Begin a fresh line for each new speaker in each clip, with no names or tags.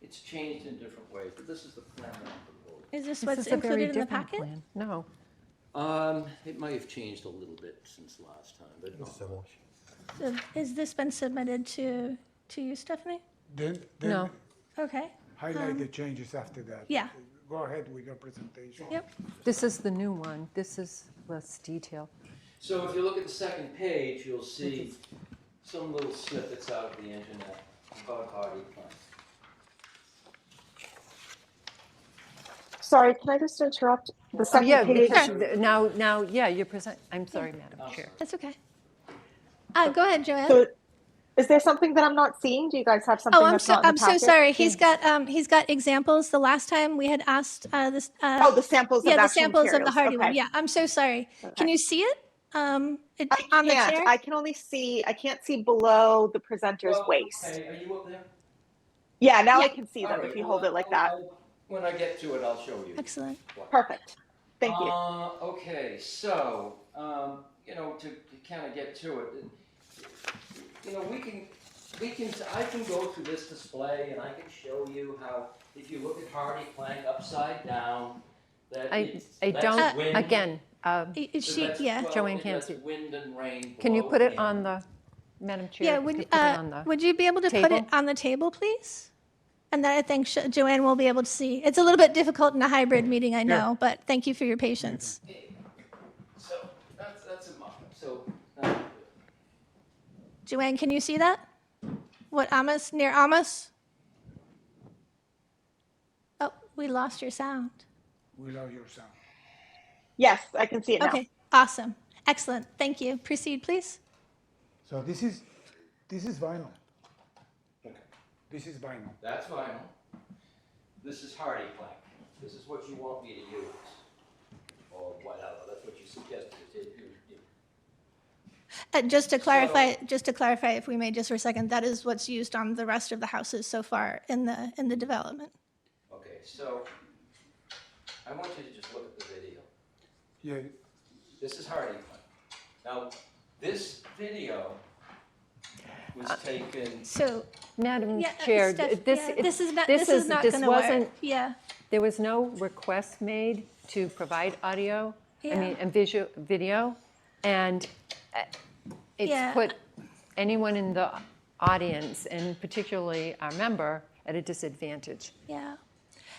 it's changed in different ways, but this is the plan that I'm proposing.
Is this
This
what's
is a
included
very
in the
different
packet?
plan. No,
Um, it might have changed a little bit since last time, but not much.
So Has this been submitted to, to you, Stephanie?
Then,
no.
then
Okay,
highlight the changes after that.
Hmm. yeah.
Go ahead with your presentation.
yep.
This is the new one. This is less detail.
So if you look at the second page, you'll see some little snippets out of the internet about Hardy Plan.
Sorry, can I just interrupt? The
Oh,
second
yeah,
page.
because th- now, now, yeah, you're present, I'm sorry,
Oh,
Madam Chair.
sorry.
That's okay. Uh, go ahead, Joanne.
So, is there something that I'm not seeing? Do you guys have something
Oh, I'm
that's
so,
not in the
I'm so
packet?
sorry. He's got, um, he's got examples. The last time we had asked, uh, this, uh,
Oh, the samples
yeah,
of
the
action
samples of the
materials.
Hardy one.
Okay.
Yeah, I'm so sorry. Can
Okay.
you see it? Um, it,
I
on the
can't.
chair?
I can only see. I can't see below the presenter's
Well,
waist.
okay, Are you up there?
Yeah, now
Yeah.
I can see
All
them
right,
if you
well,
hold it like
I'll-
that.
I'll- When I get to it, I'll show you.
Excellent.
what.
Perfect. Thank you.
Uh, okay, so, um, you know, to, to kind of get to it, you know, we can, we can, I can go through this display and I can show you how, if you look at Hardy Plank upside down, that
I,
it's-
I
that's
don't,
wind-
again, uh,
I- Is she,
that's-
yeah.
well,
Joanne can't
that's
see.
Wind and rain.
can you
blow
put it
in.
on the, Madam Chair?
Yeah,
if you
would,
put it
uh,
on the-
would you be able to put it
table?
on the table, please? And then I think Sho- Joanne will be able to see. It's a little bit difficult in a hybrid meeting, I know, but thank you for your patience.
So, that's, that's a mock-up, so, uh,
Joanne, can you see that? What, Amos, near Amos? Oh, we lost your sound.
Without your sound.
Yes, I can see it now.
Okay, awesome. Excellent. Thank you. Proceed, please.
So this is, this is vinyl.
Okay.
This is vinyl.
that's vinyl. This is Hardy Plank. This is what you want me to use. Or whatever, that's what you suggested, it- you- you-
Uh, just to clarify, just to clarify, if we may, just for a second, that is what's used on the rest of the houses so far in the, in the development.
Okay, so I want you to just look at the video.
Yeah,
This is Hardy Plank. Now, this video was taken,
Uh, So
Madam
Yeah, uh,
Chair,
Steph-
th- this,
yeah, this is not,
this
this is
is,
not
this
gonna work.
wasn't,
Yeah,
there was no request made to provide audio, I
Yeah.
mean, and visual, video, and uh,
Yeah.
it's put anyone in the audience, and particularly our member, at a disadvantage.
yeah.
well,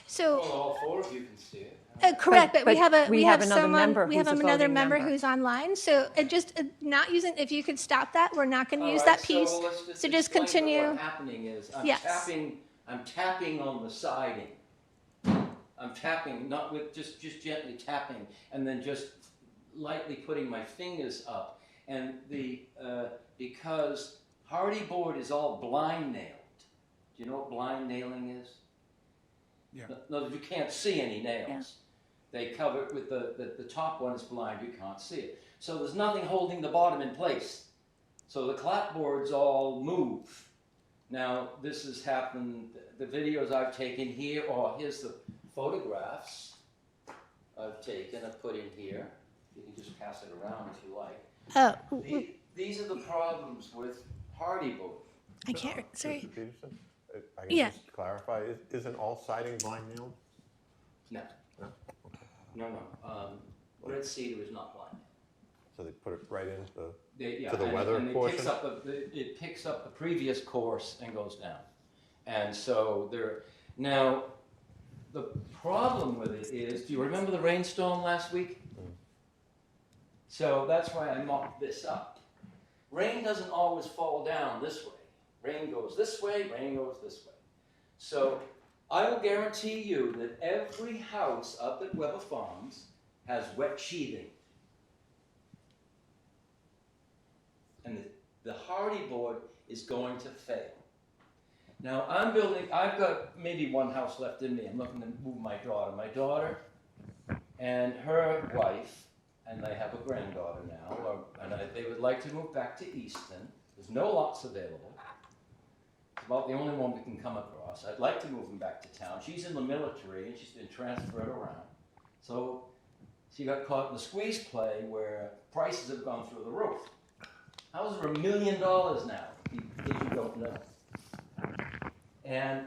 So,
all four of you can see it.
uh, correct, but we
but
have a,
we
we
have
have
another
someone,
member
we have
who's a
another
voting
member
member.
who's online. So it just, uh, not using, if you could stop that, we're not gonna use
All right,
that piece.
Uh, So, let's just
So just
explain that
continue.
What's happening is I'm
Yes.
tapping. I'm tapping on the siding. I'm tapping, not with just just gently tapping, and then just lightly putting my fingers up. And the uh, because hardy board is all blind nailed. Do you know what blind nailing is?
Yeah.
No, you can't see any nails. They cover it with the, the the top one is blind. You can't see it. So there's nothing holding the bottom in place. So the clapboards all move. Now, this has happened, the videos I've taken here, or here's the photographs I've taken, I've put in here. You can just pass it around if you like.
Oh,
The- These are the problems with Hardy Book.
I can't, sorry.
Mr. Peterson, if I can
Yeah.
just clarify, is- isn't all siding blind nailed?
No. No, no, um, Red Cedar is not blind.
So they put it right into the,
They- yeah,
To the
and-
weather
and it
portion?
picks up a- the- It picks up the previous course and goes down. And so there, now, the problem with it is, do you remember the rainstorm last week?
Mm.
So that's why I mocked this up. Rain doesn't always fall down this way. Rain goes this way, rain goes this way. So I will guarantee you that every house up at Weber Farms has wet sheathing. and the, the Hardy board is going to fail. Now, I'm building, I've got maybe one house left in me. I'm looking to move my daughter. My daughter and her wife, and they have a granddaughter now, or, and I, they would like to move back to Easton. There's no lots available. It's about the only one we can come across. I'd like to move them back to town. She's in the military and she's been transferred around. So she got caught in the squeeze play where prices have gone through the roof. Houses are a million dollars now, if you- if you don't know. And